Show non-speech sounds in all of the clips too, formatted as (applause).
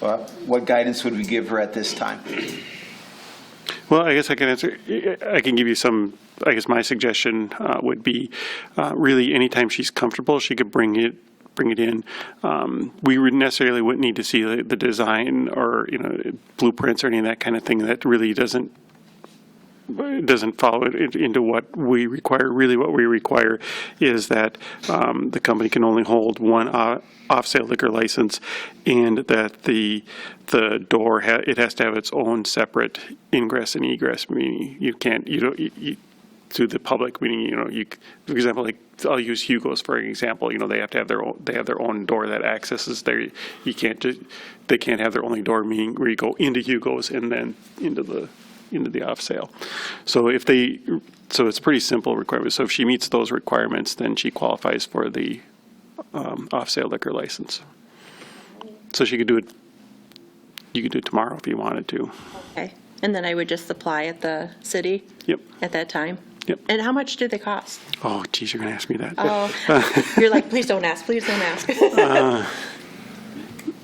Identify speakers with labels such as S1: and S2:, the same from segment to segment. S1: Well, What guidance would we give her at this time?
S2: Well, I guess I can answer, I can give you some, I guess my suggestion uh, would be, uh, really, anytime she's comfortable, she could bring it, bring it in. Um, We would necessarily wouldn't need to see the the design or, you know, blueprints or any of that kind of thing. That really doesn't it doesn't follow it in- into what we require. Really, what we require is that um, the company can only hold one uh, off-sale liquor license, and that the the door ha- it has to have its own separate ingress and egress. Meaning, you can't you don't you, you, to the public. Meaning, you know, you c- for example, like I'll use Hugo's for example. You know, they have to have their own they have their own door that accesses their. You can't just they can't have their only door. Meaning, where you go into Hugo's and then into the into the off sale. So if they, so it's a pretty simple requirement. So if she meets those requirements, then she qualifies for the um, off sale liquor license. So she could do it, you could do it tomorrow if you wanted to.
S3: Okay, and then I would just apply at the city
S2: Yep,
S3: at that time?
S2: yep. Uh,
S3: And how much do they cost?
S2: Oh geez, you're gonna ask me that.
S3: Oh, you're like, please don't ask, please don't ask. (laughs)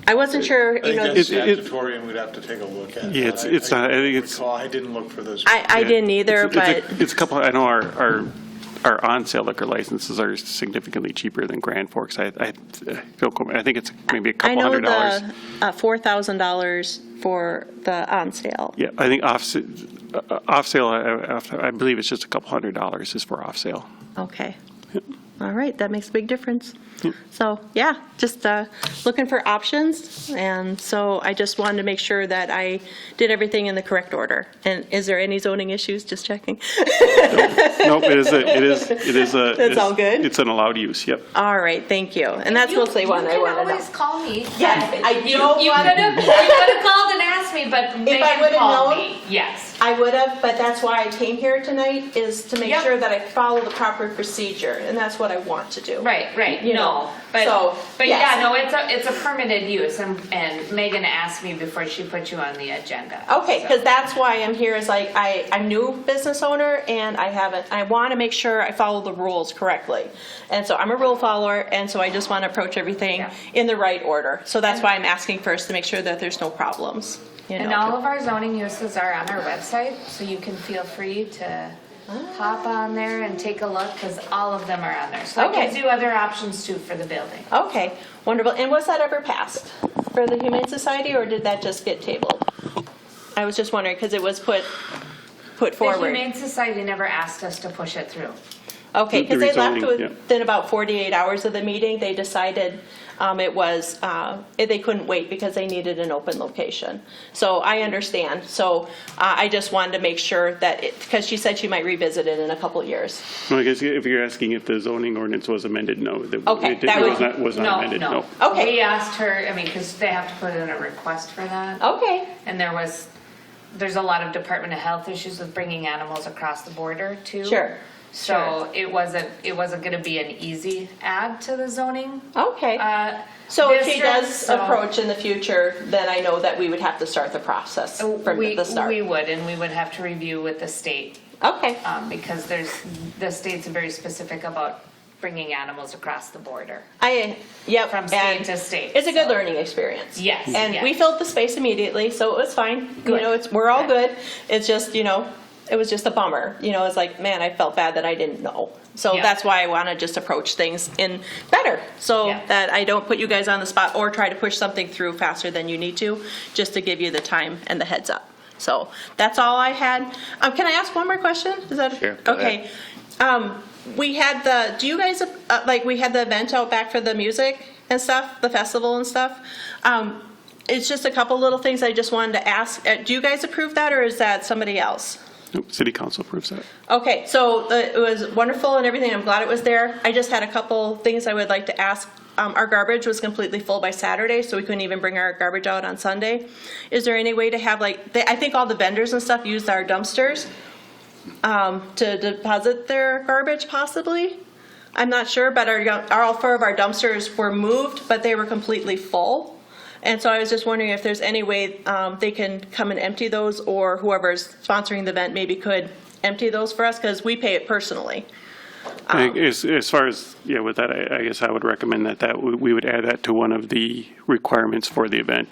S3: I wasn't sure,
S4: I
S3: you
S4: think
S3: know,
S4: that's
S2: It- it-
S4: statutory, and we'd have to take a look at it.
S2: Yeah, it's-
S4: I-
S2: it's not- I think
S4: don't
S2: it's-
S4: recall. I didn't look for those.
S3: I, I
S2: Yeah.
S3: didn't either,
S2: It's a-
S3: but,
S2: it's a- It's a couple, I know our, our, our on-sale liquor licenses are significantly cheaper than Grand Forks. I, I, don't quote me. I think it's maybe a
S3: I
S2: couple
S3: know
S2: hundred dollars.
S3: the uh, $4,000 for the on-sale.
S2: Yeah, I think off, uh, off sale, I- I off- I believe it's just a couple hundred dollars is for off
S3: (laughs)
S2: sale.
S3: Okay. All right, that makes a big difference. So, yeah, just uh, looking for options, and so I just wanted to make sure that I did everything in the correct order. And is there any zoning issues? Just checking.
S2: Nope, it is, a- it is, it is a.
S3: That's all good?
S2: It's an allowed use, yep.
S3: All right, thank you. And that's
S5: You-
S3: mostly one I
S5: You
S3: wanted
S5: can
S3: to know.
S5: always call me.
S3: Yes, I
S5: You,
S3: don't
S5: you
S3: want-
S5: could have, you could have called and asked me, but Megan
S3: would've
S5: called
S3: known-
S5: me. Yes.
S3: I would have, but that's why I came here tonight, is to make
S5: Yep.
S3: sure that I follow the proper procedure, and that's what I want to do.
S5: Right, right,
S3: You
S5: no,
S3: know,
S5: but,
S3: so,
S5: but
S3: yes.
S5: yeah, no, it's a, it's a permitted use and, and Megan asked me before she put you on the agenda.
S3: Okay,
S5: so.
S3: because that's why I'm here, is like, I, I'm new business owner, and I haven't, I want to make sure I follow the rules correctly. And so I'm a rule follower, and so I just want to approach everything
S5: Yeah.
S3: in the right order. So that's why I'm asking first, to make sure that there's no problems, you know?
S5: And all of our zoning uses are on our website, so you can feel free to hop on there and take a look, because all of them are on there. So
S3: Okay.
S5: it gives you other options too for the building.
S3: Okay, wonderful. And was that ever passed for the Humane Society, or did that just get tabled? I was just wondering, because it was put, put
S5: The
S3: forward.
S5: Humane Society never asked us to push it through.
S3: Okay,
S2: The- the
S3: because they left
S2: rezoning, yeah.
S3: within about 48 hours of the meeting, they decided um, it was, uh, they couldn't wait because they needed an open location. So I understand. So uh, I just wanted to make sure that, because she said she might revisit it in a couple years.
S2: Well, I guess if you're asking if the zoning ordinance was amended, no. that-
S3: Okay,
S2: it did-
S3: that
S2: It
S3: would-
S2: was not, was not amended, no.
S3: Okay.
S5: We asked her, I mean, because they have to put in a request for that.
S3: Okay,
S5: And there was, there's a lot of Department of Health issues with bringing animals across the border too.
S3: Sure,
S5: So it wasn't, it wasn't gonna be an easy add to the zoning.
S3: okay.
S5: uh,
S3: So if she
S5: district,
S3: does
S5: so
S3: approach in the future, then I know that we would have to start the process from
S5: Uh, we-
S3: the start.
S5: We would, and we would have to review with the state,
S3: Okay,
S5: um, because there's, the state's very specific about bringing animals across the border.
S3: I, yep.
S5: From state
S3: and
S5: to state,
S3: It's a good
S5: so.
S3: learning experience.
S5: Yes,
S3: And
S5: yes.
S3: we filled the space immediately, so it was fine. You
S5: Good.
S3: know, it's, we're all
S5: Good.
S3: good. It's just, you know, it was just a bummer. You know, it's like, man, I felt bad that I didn't know. So
S5: Yeah.
S3: that's why I want to just approach things in better, so
S5: Yeah.
S3: that I don't put you guys on the spot or try to push something through faster than you need to, just to give you the time and the heads up. So that's all I had. Um, can I ask one more question? Is that
S6: Sure, go
S3: okay? Um, we had the. Do you guys uh, like? We had the event out back for the music and stuff, the festival and stuff. Um, it's just a couple little things I just wanted to ask. Uh, do you guys approve that, or is that somebody else?
S2: Nope, City council approves that.
S3: Okay, so uh, it was wonderful and everything. I'm glad it was there. I just had a couple things I would like to ask. Um, our garbage was completely full by Saturday, so we couldn't even bring our garbage out on Sunday. Is there any way to have like they, I think all the vendors and stuff used our dumpsters um, to deposit their garbage, possibly? I'm not sure, but our, our all four of our dumpsters were moved, but they were completely full. And so I was just wondering if there's any way um, they can come and empty those, or whoever's sponsoring the event maybe could empty those for us, because we pay it personally.
S2: I- As, as far as, yeah, with that, I, I guess I would recommend that, that, we we would add that to one of the requirements for the event